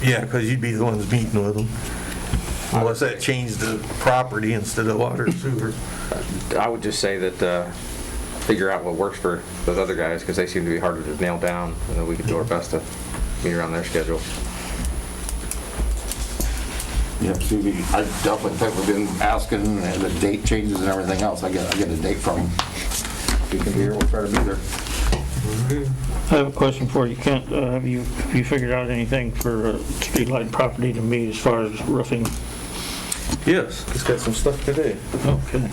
Yeah, because you'd be the ones meeting with them. Unless that changed the property instead of water and sewer. I would just say that, uh, figure out what works for those other guys, because they seem to be harder to nail down, and then we could do our best to meet around their schedule. Yeah, see, we- I definitely think we've been asking, and the date changes and everything else, I get, I get a date from him. If he can be here, we'll try to be there. I have a question for you, Kent. Uh, Have you, have you figured out anything for uh, streetlight property to meet as far as roofing? Yes, it's got some stuff to do. Okay.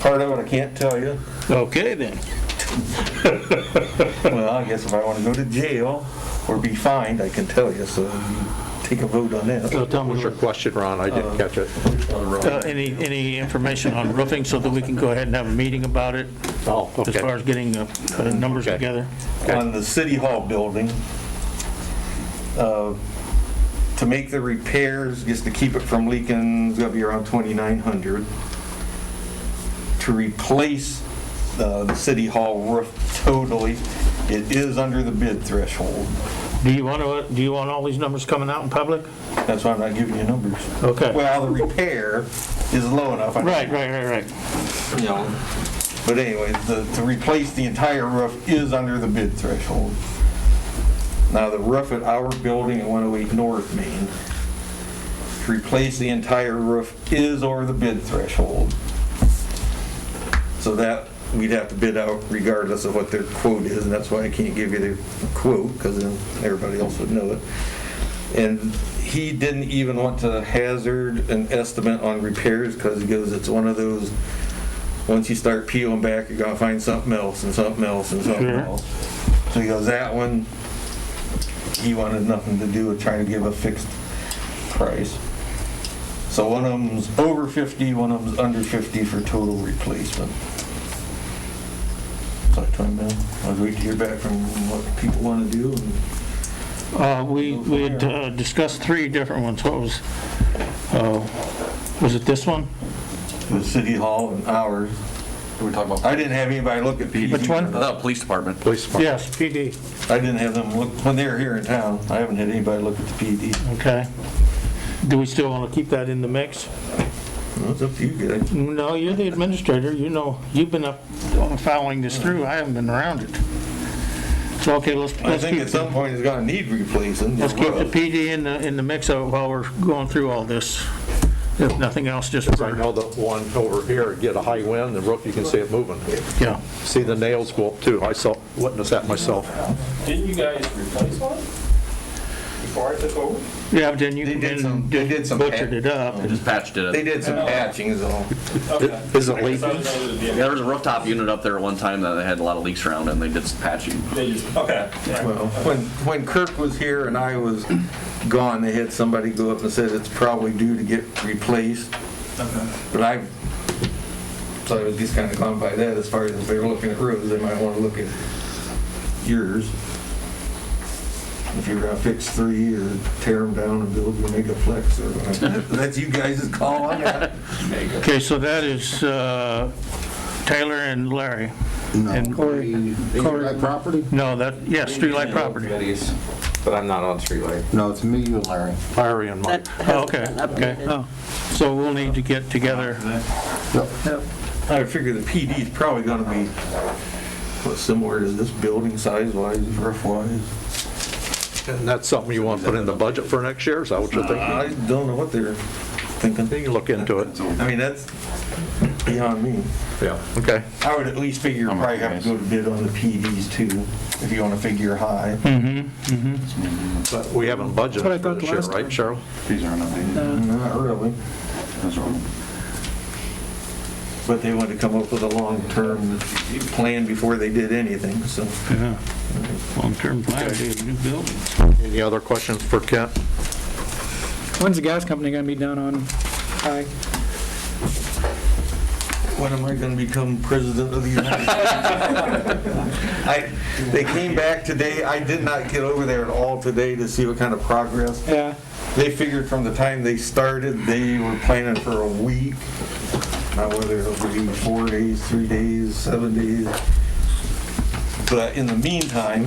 Part of it I can't tell you. Okay, then. Well, I guess if I want to go to jail or be fined, I can tell you, so take a vote on So that. tell me, What's your question, Ron? I didn't catch it. uh, any, any information on roofing so that we can go ahead and have a meeting about it Oh, as far okay. as getting uh, uh, numbers Okay. together? On the city hall building, uh, to make the repairs, just to keep it from leaking, it's gonna be around 2,900. To replace uh, the city hall roof totally, it is under the bid threshold. Do you want to, do you want all these numbers coming out in public? That's why I'm not giving you numbers. Okay. Well, the repair is low enough. I- Right, right, right, right. you know. But anyway, the, to replace the entire roof is under the bid threshold. Now, the roof at our building at 108 North Main, to replace the entire roof is over the bid threshold. So that, we'd have to bid out regardless of what their quote is, and that's why I can't give you the quote, because then everybody else would know it. And he didn't even want to hazard an estimate on repairs, because he goes, it's one of those, once you start peeling back, you're gonna find something else and something else and something Sure. else. So he goes, that one, he wanted nothing to do with trying to give a fixed price. So one of them's over 50, one of them's under 50 for total replacement. So I told him, man, I was waiting to hear back from what people want to do and Uh, We, we had uh, discussed three different ones. What was, uh, was it this one? the city hall and ours. We're talking about. I didn't have anybody look at PD. Which one? The Uh, police department. Police department. Yes, PD. I didn't have them look, when they were here in town, I haven't had anybody look at the PD. Okay. Do we still want to keep that in the mix? Well, It's up to you guys. No, you're the administrator, you know, you've been up following this through, I haven't been around it. So, okay, let's, I let's think keep, at some point it's gonna need replacing. let's keep the roof. PD in the, in the mix of- while we're going through all this. If nothing else, just, I for- know that one over here, get a high wind, the roof, you can see it moving. yeah. See the nails go up too. I saw, witnessed that myself. Didn't you guys replace one before I took over? Yeah, but then you They did some- then they did some- butchered it up. They just patched it up. They did some patching is all. Okay. Is I it guess I leaking? was under the Yeah, deal. there was a rooftop unit up there one time that they had a lot of leaks around and they did some patching. They just, okay. Well, when, when Kirk was here and I was gone, they had somebody go up and said it's probably due to get replaced. But I've, so I was just kind of gone by that as far as if they were looking at roofs, they might want to look at yours. If you're gonna fix three or tear them down and build your mega flex or whatever. That's you guys' call on that. Okay, so that is uh, Taylor and Larry. And Corey. Corey property? No, that, yeah, streetlight property. Committees, But I'm not on streetlight. No, it's me, you, and Larry. Larry and Mike. That Oh, hasn't Okay, been okay. updated. Oh. So we'll need to get together. I figure the PD is probably gonna be, what, similar to this building size wise, roof wise. And that's something you want to put in the budget for next year? Is that what you're thinking? I don't know what they're thinking. You can look into it. I mean, Uh, that's beyond me. Yeah, okay. I would at least figure you probably have to go to bid on the PDs too, if you wanna figure high. But we haven't budgeted for this year, right, Cheryl? These are not. Not really, but they wanted to come up with a long-term plan before they did anything, so. Yeah. Long-term plan, is new building. Any other questions for Kent? When's the gas company gonna be down on High? When am I gonna become president of the United States? I, they came back today, I did not get over there at all today to see what kind of progress. Yeah, They figured from the time they started, they were planning for a week. Now whether it'll be four days, three days, seven days. But in the meantime,